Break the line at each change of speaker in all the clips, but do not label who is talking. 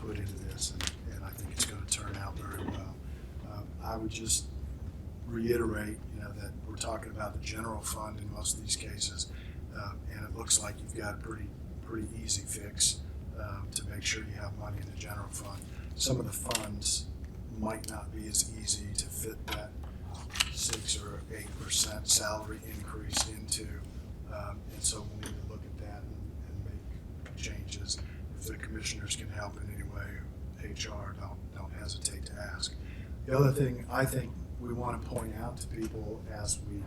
put into this, and, and I think it's gonna turn out very well. Um, I would just reiterate, you know, that we're talking about the general fund in most of these cases, um, and it looks like you've got a pretty, pretty easy fix um, to make sure you have money in the general fund. Some of the funds might not be as easy to fit that six or eight percent salary increase into. Um, And so we need to look at that and- and make changes. If the commissioners can help in any way, HR, don't, don't hesitate to ask. The other thing I think we want to point out to people as we,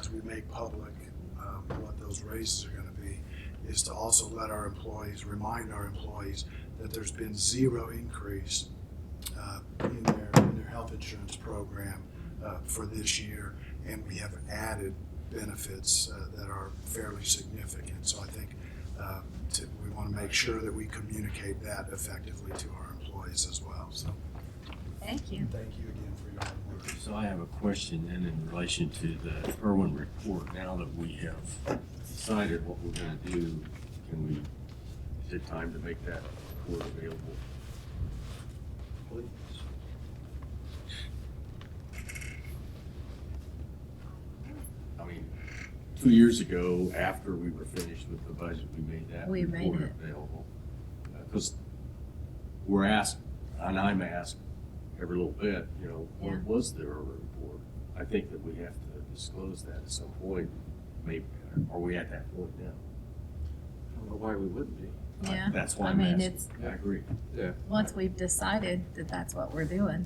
as we make public um, what those raises are going to be, is to also let our employees, remind our employees that there's been zero increase uh, in their, in their health insurance program uh, for this year, and we have added benefits uh, that are fairly significant. So I think uh, to- we want to make sure that we communicate that effectively to our employees as well. So
Thank you.
thank you again for your hard work.
So I have a question then in relation to the Irwin report. Now that we have decided what we're gonna do, can we, is it time to make that report available? Please. I mean, two years ago, after we were finished with the budget, we made that
We made
report
it.
available. Because we're asked, and I'm asked every little bit, you know,
Yeah.
what was the Irwin report? I think that we have to disclose that at some point, maybe, are we at that point now?
I don't know why we wouldn't be.
I-
Yeah,
That's why
I
I'm
mean,
asking.
it's,
I agree.
once we've decided that that's what we're doing,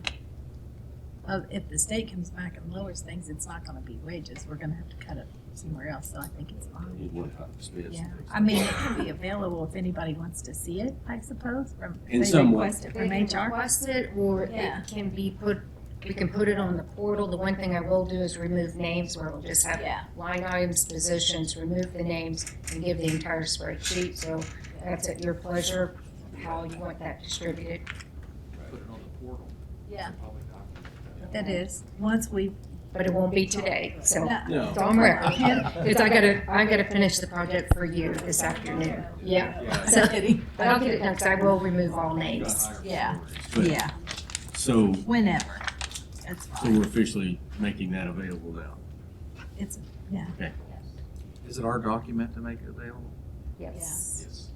uh, if the state comes back and lowers things, it's not gonna be wages, we're gonna have to cut it somewhere else, so I think it's
I
fine.
need one time expense.
Yeah, I mean, it can be available if anybody wants to see it, I suppose, from,
In
if they
some way.
request it
They
from
can
HR.
request it, or
Yeah.
it can be put, we can put it on the portal. The one thing I will do is remove names, where it'll just have
Yeah,
line items, positions, remove the names, and give the entire spreadsheet. So that's at your pleasure, how you want that distributed.
Put it on the portal.
yeah,
Public document.
that is, once we,
But it won't be today, so
no,
No,
it's on record.
Yeah.
Because I gotta, I gotta finish the project for you this afternoon. Yeah.
yeah.
so,
But I'll get it done, 'cause I will remove all names.
Yeah.
But-
yeah,
So,
whenever, that's
so
fine,
we're officially making that available now.
it's,
Is it our document to make it available?
Yes.
Yes.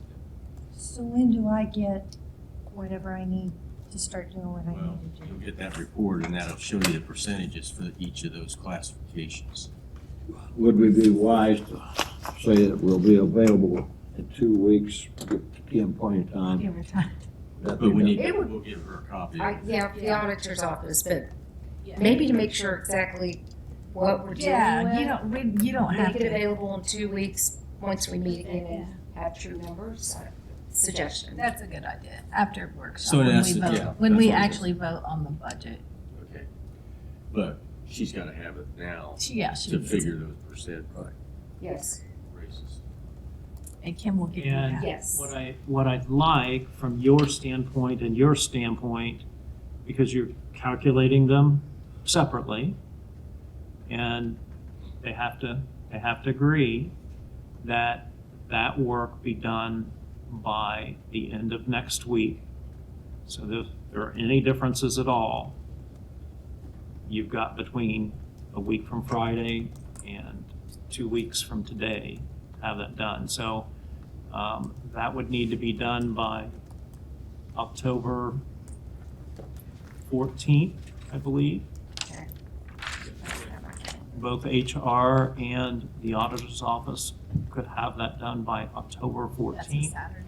So when do I get whatever I need to start doing what I
Well,
need to do?
you'll get that report and that'll show you the percentages for each of those classifications.
Would we be wise to say that we'll be available in two weeks, Kim point in time?
Give her time.
That
But we
be
need,
It would-
we'll give her a copy.
I, yeah, the auditor's office, but
Yeah.
maybe to make sure exactly what we're dealing
yeah, you
with.
don't, we, you don't have
Make it
to.
available in two weeks, once we meet again
Yeah.
and have true numbers, uh, suggestion.
That's a good idea, after workshop,
So in
when we
essence, yeah,
vote, when we
that's what it is.
actually vote on the budget.
Okay. But she's gotta have it now
She- Yeah, she
to
needs it.
figure those percent
Yes,
raises.
And Kim will give you
And-
that.
yes.
What I, what I'd like from your standpoint and your standpoint, because you're calculating them separately, and they have to, they have to agree that that work be done by the end of next week. So if there are any differences at all, you've got between a week from Friday and two weeks from today to have that done. So um, That would need to be done by October 14th, I believe. Both HR and the auditor's office could have that done by October
That's a
14th.
Saturday.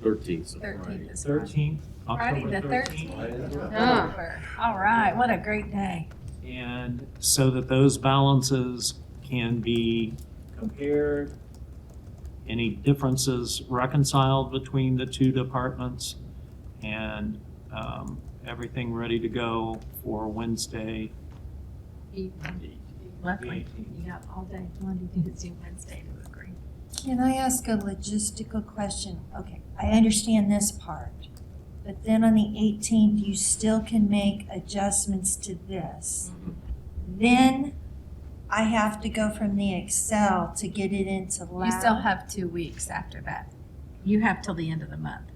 Thirteen, so
Thirteenth is Friday.
13th,
Friday,
October
the
13th.
thirteenth.
Ah.
All right, what a great day.
And so that those balances can be compared, any differences reconciled between the two departments, and um, everything ready to go for Wednesday.
Luckily, you got all day, Monday, Tuesday, Wednesday to agree.
Can I ask a logistical question? Okay, I understand this part, but then on the eighteenth, you still can make adjustments to this. Then I have to go from the Excel to get it into
You still
lab.
have two weeks after that. You have till the end of the month.